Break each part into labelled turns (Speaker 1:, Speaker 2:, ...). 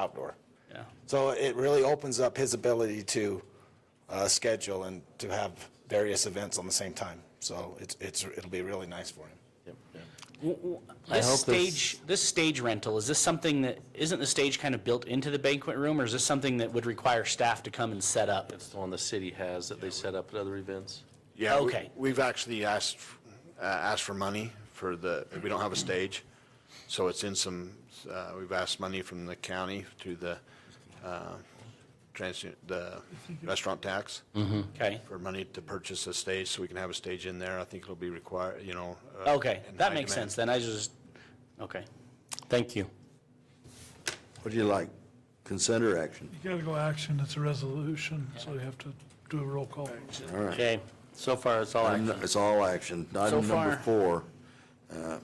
Speaker 1: outdoor.
Speaker 2: Yeah.
Speaker 1: So it really opens up his ability to uh, schedule and to have various events on the same time. So it's, it's, it'll be really nice for him.
Speaker 2: This
Speaker 3: hope this-
Speaker 2: stage, this stage rental, is this something that, isn't the stage kind of built into the banquet room, or is this something that would require staff to come and set up?
Speaker 3: It's the one the city has that they set up at other events.
Speaker 4: Yeah. we-
Speaker 2: Okay.
Speaker 4: We've actually asked, uh, asked for money for the, we don't have a stage, so it's in some, uh, we've asked money from the county through the, uh, trans, the restaurant tax
Speaker 2: Mm. Okay,
Speaker 4: for money to purchase a stage, so we can have a stage in there. I think it'll be required, you know. uh,
Speaker 2: okay,
Speaker 4: in
Speaker 2: that
Speaker 4: high
Speaker 2: makes
Speaker 4: demand.
Speaker 2: sense, then, I just, okay, thank you.
Speaker 5: What do you like? Consent or action?
Speaker 6: You gotta go action, it's a resolution, so you have to do a roll call.
Speaker 5: All right. Um,
Speaker 2: Okay, so far, it's all action.
Speaker 5: It's all action.
Speaker 2: So
Speaker 5: Item
Speaker 2: far.
Speaker 5: number four, Uh,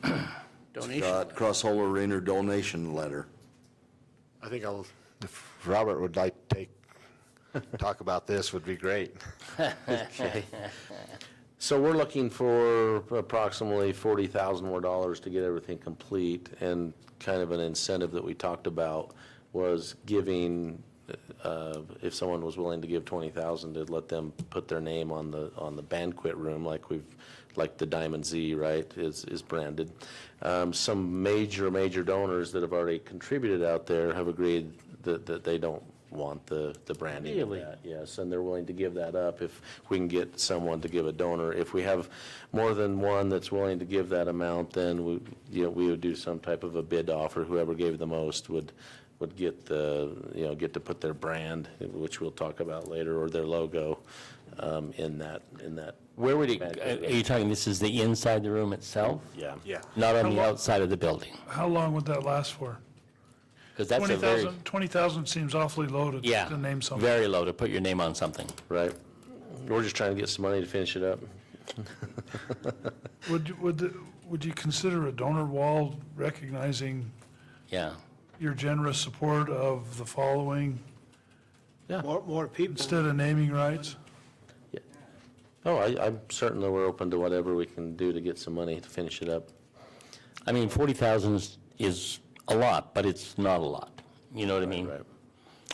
Speaker 2: donation.
Speaker 5: got Crossholder Arena donation letter.
Speaker 4: I think I'll, if Robert would like to take, talk about this would be great.
Speaker 3: So we're looking for approximately forty thousand more dollars to get everything complete, and kind of an incentive that we talked about was giving, uh, if someone was willing to give twenty thousand, to let them put their name on the, on the banquet room, like we've, like the Diamond Z, right, is, is branded. Um, Some major, major donors that have already contributed out there have agreed that, that they don't want the, the branding of that, yes, and they're willing to give that up if we can get someone to give a donor. If we have more than one that's willing to give that amount, then we, you know, we would do some type of a bid offer. Whoever gave the most would, would get the, you know, get to put their brand, which we'll talk about later, or their logo, um, in that, in that.
Speaker 7: Where would it, uh, are you talking, this is the inside the room itself?
Speaker 3: Yeah.
Speaker 4: Yeah.
Speaker 7: Not on the outside of the building?
Speaker 6: How long would that last for?
Speaker 7: Because that's a very,
Speaker 6: 20,000, 20,000 seems awfully low to-
Speaker 7: yeah,
Speaker 6: to name something.
Speaker 7: very low to put your name on something.
Speaker 3: Right? We're just trying to get some money to finish it up.
Speaker 6: Would, you- would, the- would you consider a donor wall recognizing
Speaker 7: Yeah.
Speaker 6: your generous support of the following
Speaker 8: More, more people.
Speaker 6: instead of naming rights?
Speaker 3: Oh, I, I'm certain that we're open to whatever we can do to get some money to finish it up.
Speaker 7: I mean, 40,000 is- is a lot, but it's not a lot. You know what I mean?
Speaker 3: right.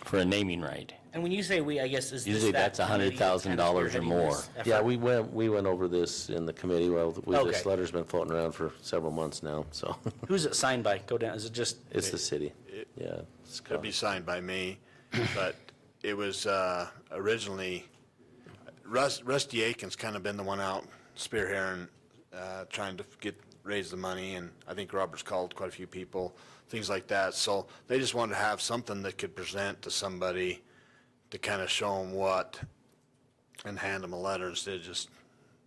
Speaker 7: For a naming right.
Speaker 2: And when you say we, I guess, is this
Speaker 7: Usually
Speaker 2: that
Speaker 7: that's
Speaker 2: committee that's kind of
Speaker 7: $100,000 or
Speaker 2: spearheading
Speaker 7: more.
Speaker 2: this effort?
Speaker 3: Yeah, we went, we went over this in the committee, well, we-
Speaker 2: Okay.
Speaker 3: this letter's been floating around for several months now, so,
Speaker 2: Who's it signed by? Go down, is it just,
Speaker 3: it's the city, yeah. it's
Speaker 4: It'll be
Speaker 3: Scott.
Speaker 4: signed by me, but it was uh, originally, Rus- Rusty Aiken's kind of been the one out spearheading, uh, trying to get, raise the money, and I think Robert's called quite a few people, things like that. So they just wanted to have something that could present to somebody to kind of show them what and hand them a letter instead of just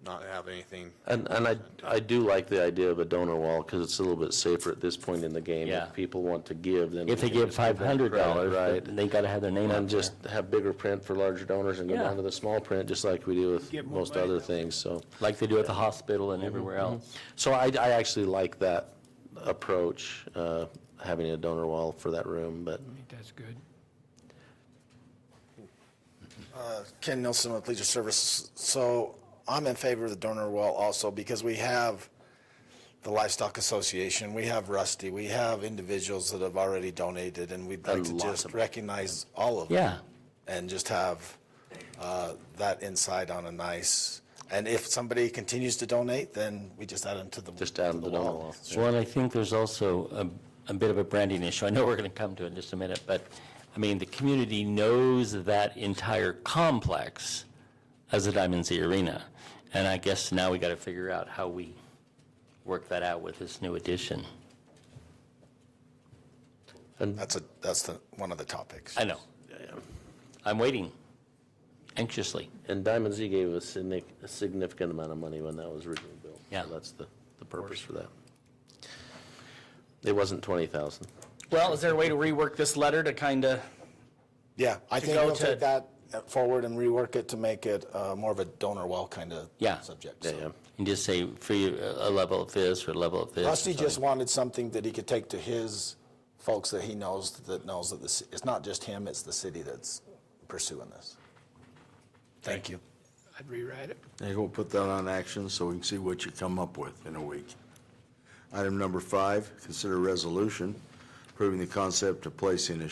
Speaker 4: not have anything.
Speaker 3: And, and I, I do like the idea of a donor wall, because it's a little bit safer at this point in the game.
Speaker 7: Yeah.
Speaker 3: If people want to give, then.
Speaker 7: If
Speaker 3: we
Speaker 7: they
Speaker 3: can
Speaker 7: give
Speaker 3: just that
Speaker 7: $500,
Speaker 3: credit,
Speaker 7: but they got to have their name
Speaker 3: Right,
Speaker 7: on
Speaker 3: and
Speaker 7: there.
Speaker 3: just have bigger print for larger donors and go
Speaker 7: Yeah.
Speaker 3: down to the small print, just like we do with
Speaker 8: Get more
Speaker 3: most
Speaker 8: money
Speaker 3: other
Speaker 8: that way.
Speaker 3: things, so.
Speaker 7: Like they do at the hospital and everywhere else.
Speaker 3: So I, I actually like that approach, uh, having a donor wall for that room, but
Speaker 8: That's good.
Speaker 1: Ken Nelson with Leisure Service. So I'm in favor of the donor wall also because we have the Livestock Association, we have Rusty, we have individuals that have already donated, and we'd like to
Speaker 3: lots
Speaker 1: just recognize all of them.
Speaker 7: Yeah.
Speaker 1: And just have uh, that insight on a nice, and if somebody continues to donate, then we just add them to the.
Speaker 3: just add
Speaker 1: to
Speaker 3: them to the donor wall.
Speaker 7: Well, and I think there's also a, a bit of a branding issue. I know we're going to come to it in just a minute, but, I mean, the community knows that entire complex as the Diamond Z Arena. And I guess now we got to figure out how we work that out with this new addition.
Speaker 1: That's a, that's the, one of the topics.
Speaker 7: I know. I'm waiting anxiously.
Speaker 3: And Diamond Z gave us a nic- a significant amount of money when that was originally built.
Speaker 7: Yeah.
Speaker 3: So That's the, the purpose for that. It wasn't twenty thousand.
Speaker 2: well, is there a way to rework this letter to kind of,
Speaker 1: Yeah, I
Speaker 2: To
Speaker 1: think
Speaker 2: go
Speaker 1: we'll
Speaker 2: to-
Speaker 1: take that forward and rework it to make it uh, more of a donor well kind of
Speaker 7: Yeah.
Speaker 1: subject.
Speaker 3: Yeah,
Speaker 1: so.
Speaker 3: yeah.
Speaker 7: And just say, for you, a level of this or a level of this. or
Speaker 1: Rusty just
Speaker 7: something.
Speaker 1: wanted something that he could take to his folks that he knows, that knows that this, it's not just him, it's the city that's pursuing this. Thank you.
Speaker 8: I'd rewrite it.
Speaker 5: And we'll put that on action so we can see what you come up with in a week. Item number five, consider resolution approving the concept of placing a